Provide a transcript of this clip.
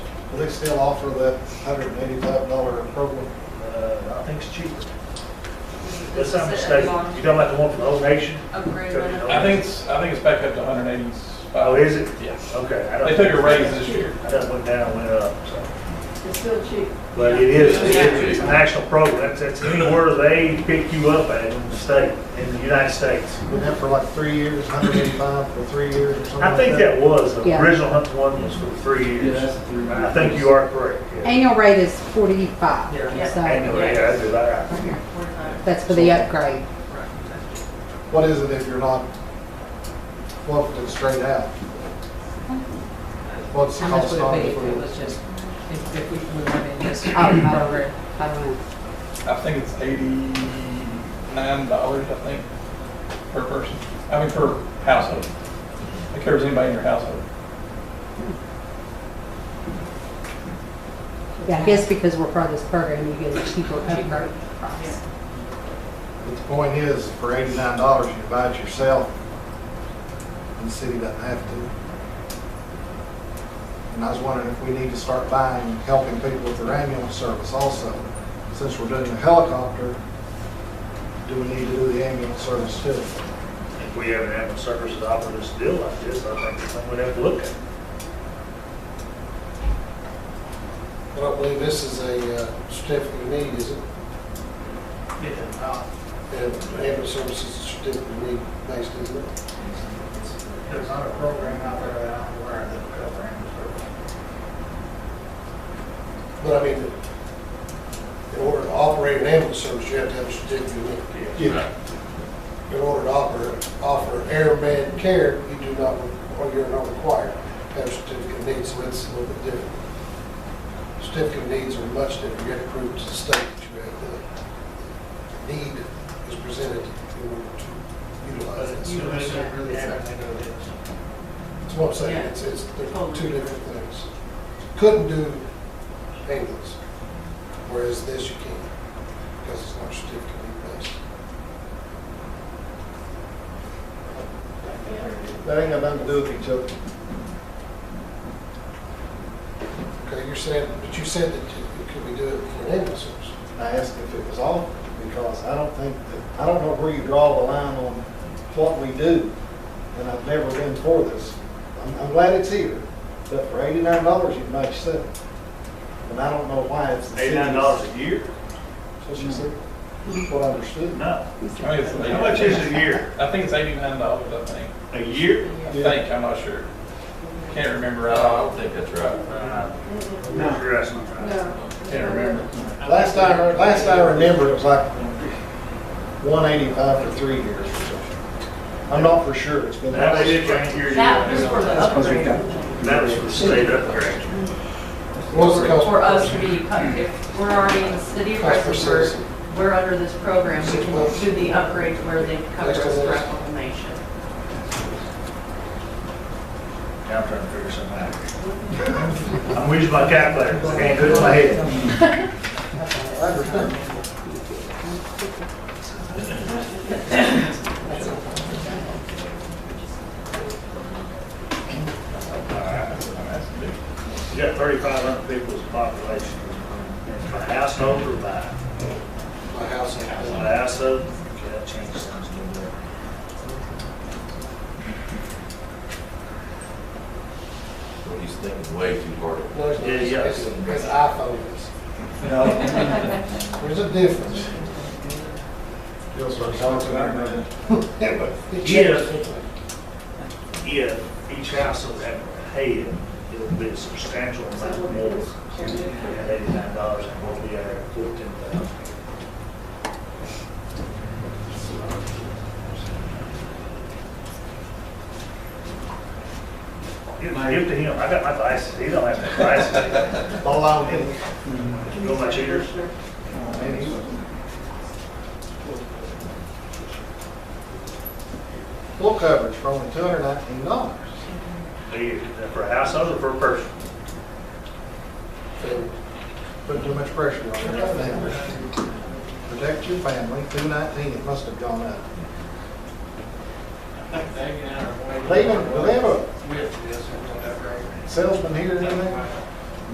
Will they still offer that hundred and eighty-five dollar program? Uh, I think it's cheaper. That's This not is a mistaken. You long talking about the one from Old Nation? Upgrade. Took it on it. I think it's, I think it's back up to 185. Oh, is it? Yeah. Okay. I don't- They took a raise this year. I done went down, went up, so. It's still cheap. But it is, it is- it's a national program. That's, that's anywhere they pick you up at in the state, in the United States. Been that for like three years, hundred and eighty-five for three years or something I like think that was, the Yeah. original Hunt one was for three years. I think you are correct. yeah. Annual rate is forty-five. Yeah. so- Anyway, yeah, that's about right. Here, 45. That's for the upgrade. What is it if you're not quoted straight out? What's the How much cost would on it be it? if it was just, if, if we we went in this Oh, I don't know. program? I don't know. I think it's $89, I think, per person. I mean, per household. It covers anybody in your household. Yeah, I guess because we're part of this program, you get a cheaper Cheaper. upgrade price. But the point is, for eighty-nine dollars, you buy it yourself, and the city doesn't have to. And I was wondering if we need to start buying, helping people with their ambulance service also. Since we're doing the helicopter, do we need to do the ambulance service too? If we have an animal service that offer us a deal like this, I think it's something we'd have to look at. I don't believe this is a uh, certificate of need, is it? uh, Yeah. And ambulance service is a certificate of need based, isn't it? There's not a program out there that I'm aware of that would cover ambulance service. But I mean, in order to operate an ambulance service, you have to have a certificate of need. Yeah. In order to offer, offer airman care, you do not, or you're not required to have a certificate of need, so it's a little bit different. Certificate of needs are much different, you have to prove to the state that you have the need is presented in order to utilize it. So they don't really have anything to do with it. That's what I'm saying, Yeah. it's, it's, they're two different things. Couldn't do ambulance, whereas this you can, because it's not certificate of need based. That ain't got nothing to do with each other. Okay, you're saying, but you said that you- could we do it for an ambulance service? I asked if it was off, because I don't think that, I don't know where you draw the line on what we do, and I've never been for this. I'm, I'm glad it's here, but for eighty-nine dollars, you can make seven. And I don't know why it's. the city's- Eighty-nine dollars a year? That's what she said, That's what I understood. No. I mean, it's How much is a year? I think it's $89, I think. A year? I think, I'm not sure. Can't remember. No, Oh, I don't think that's right. Uh, No. Sure, that's not right. No. Can't remember. Last I, heard- last I remember, it was like one eighty-five for three years or something. I'm not for sure, it's been. That was it, right here. That was for the upgrade. That was for state upgrade. What was the cost? For us to be, if we're already in the city of Cost per Rustenburg, citizen. we're under this program, we Six can months. do the upgrade where they cover Next to us this. throughout the nation. Now I'm trying to figure something out. I'm using my calculator, 'cause I can't do it in my head. You got thirty-five hundred people as a population, by household or by, My house. by household, okay, that changes things a little bit. Well, he's thinking way too hard. No, it's not. Yeah, yeah. It's, it's iPhone. There's a difference. Feels like something I remember. Yeah, but it Yeah. changes. if each household had a head, it would be a substantial amount more than eighty-nine dollars and what we are fourteen thousand. Give give to him, I got my glasses, he don't have my glasses. All I would, You know my cheaters? and he- full coverage for only two hundred nineteen dollars. They- For a household or for a person? Put too much pressure on your family. Protect your family, two nineteen, it must have gone up. I think they get out of the way. They even, do they have a With this or whatever. salesman here in there?